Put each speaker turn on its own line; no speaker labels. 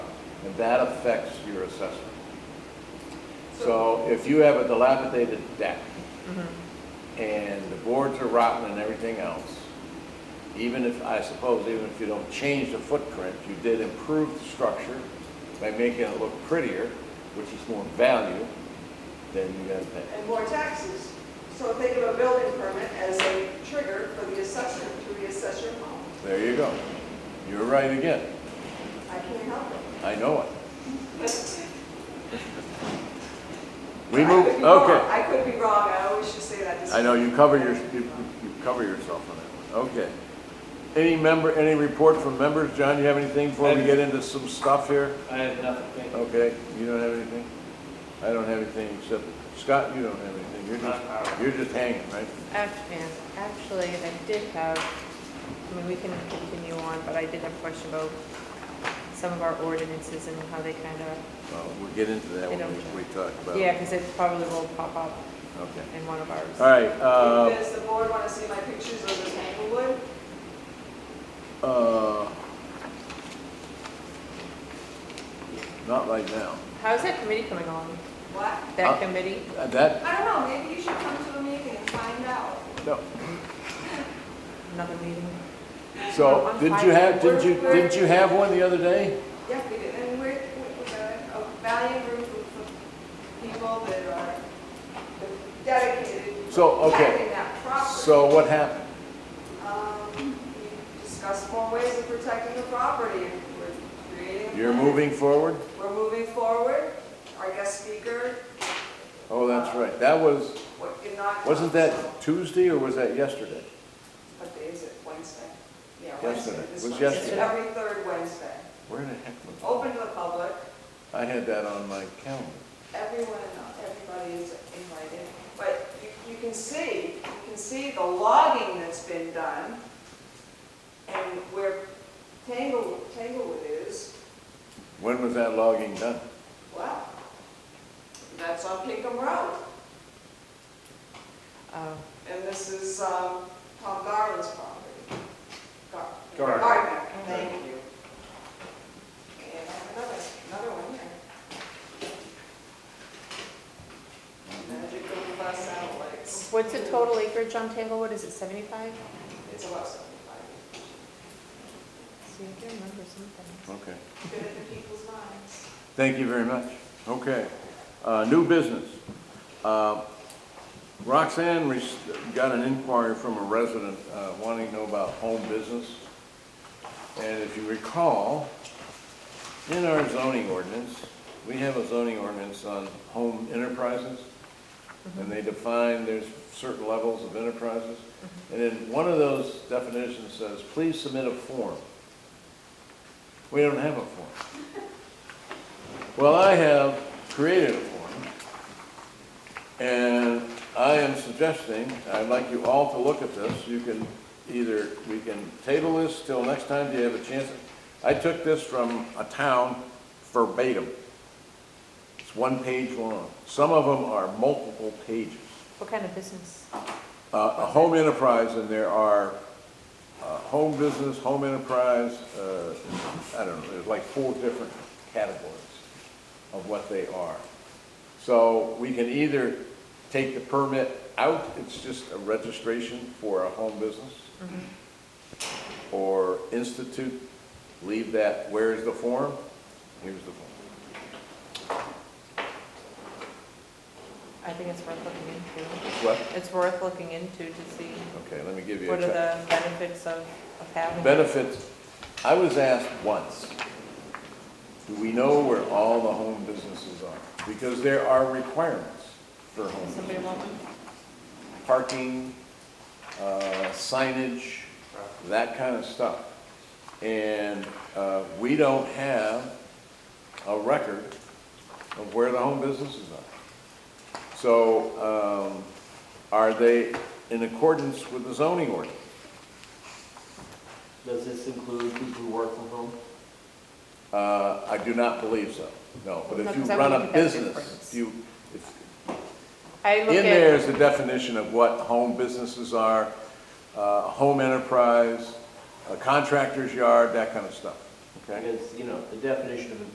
and that affects your assessment. So if you have a dilapidated deck,
Mm-hmm.
and the boards are rotten and everything else, even if, I suppose, even if you don't change the footprint, you did improve the structure by making it look prettier, which is more value, then you gotta pay.
and more taxes. So if they give a building permit as a trigger for the assessor to reassess your home,
There you go. You're right again.
I can't help it.
I know it.
I
We
could
move,
be wrong.
okay.
I could be wrong, I always should say that.
I know, you cover your, you you cover yourself on that one. Okay. Any member, any report from members? John, you have anything before we get into some stuff here?
I have nothing, thank you.
Okay, you don't have anything? I don't have anything except, Scott, you don't have anything. You're just, you're just hanging, right?
Actually, actually, I did have, I mean, we can continue on, but I did have a question about some of our ordinances and how they kind of,
Well, we'll get into that when we- we talk about
yeah,
it.
because it probably will pop up
Okay.
in one of
All
ours.
right, uh,
Does the board want to see my pictures of the Tanglewood?
uh, not right now.
How's that committee coming along?
What?
Huh?
That committee?
Uh, That,
I don't know, maybe you should come to a meeting and find out.
no.
Another meeting?
So, didn't you have, didn't you, didn't you have one the other day?
Yeah, we did, and we're, we're a valiant group of people that are dedicated to
So, okay.
protecting that property.
So what happened?
Um, we discussed more ways of protecting the property, and we're creating. a
You're
plan.
moving forward?
We're moving forward, our guest speaker,
Oh, that's right. That was,
what did not.
wasn't that Tuesday or was that yesterday?
What day is it, Wednesday? Yeah,
Yesterday.
Wednesday. this
It was
Wednesday.
yesterday.
Every third Wednesday,
Where the heck was
open to the public,
I had that on my calendar.
everyone, everybody is invited. But you, you can see, you can see the logging that's been done and where Tangle, Tanglewood is,
When was that logging done?
wow. That's on Pinkham Road. Um,
Oh,
And this is um, Tom Garland's property. Gar-
Gardner.
Gardner, thank you. And I have another, another one here. Magic little bus satellites.
What's the total acreage on Tanglewood? Is it 75?
It's about seventy-five.
See, I can remember something.
Okay.
Good in the people's minds.
Thank you very much. Okay. Uh, New business. Uh, Roxanne re- got an inquiry from a resident uh, wanting to know about home business. And if you recall, in our zoning ordinance, we have a zoning ordinance on home enterprises. And they define, there's certain levels of enterprises. And then one of those definitions says, please submit a form. We don't have a form. Well, I have created a form, and I am suggesting, I'd like you all to look at this. You can either, we can table this till next time, do you have a chance? I took this from a town verbatim. It's one page long. Some of them are multiple pages.
What kind of business?
Uh, A home enterprise, and there are uh, home business, home enterprise, uh, I don't know, there's like four different categories of what they are. So we can either take the permit out, it's just a registration for a home business,
Mm-hmm.
or institute, leave that, where is the form? Here's the form.
I think it's worth looking into.
What?
It's worth looking into to see
Okay, let me give you a
what are
check.
the benefits of of having. it.
Benefits, I was asked once, do we know where all the home businesses are? Because there are requirements for home
Somebody
businesses.
want one?
Parking, uh, signage, that kind of stuff. And uh, we don't have a record of where the home businesses are. So um, are they in accordance with the zoning ordinance?
Does this include people who work from home?
Uh, I do not believe so, no. But
No,
if you
'cause I
run
wouldn't
a
think that's
business,
different.
you, if-
I look
in there is
at,
a definition of what home businesses are, uh, home enterprise, a contractor's yard, that kind of stuff, okay?
Because, you know, the definition of a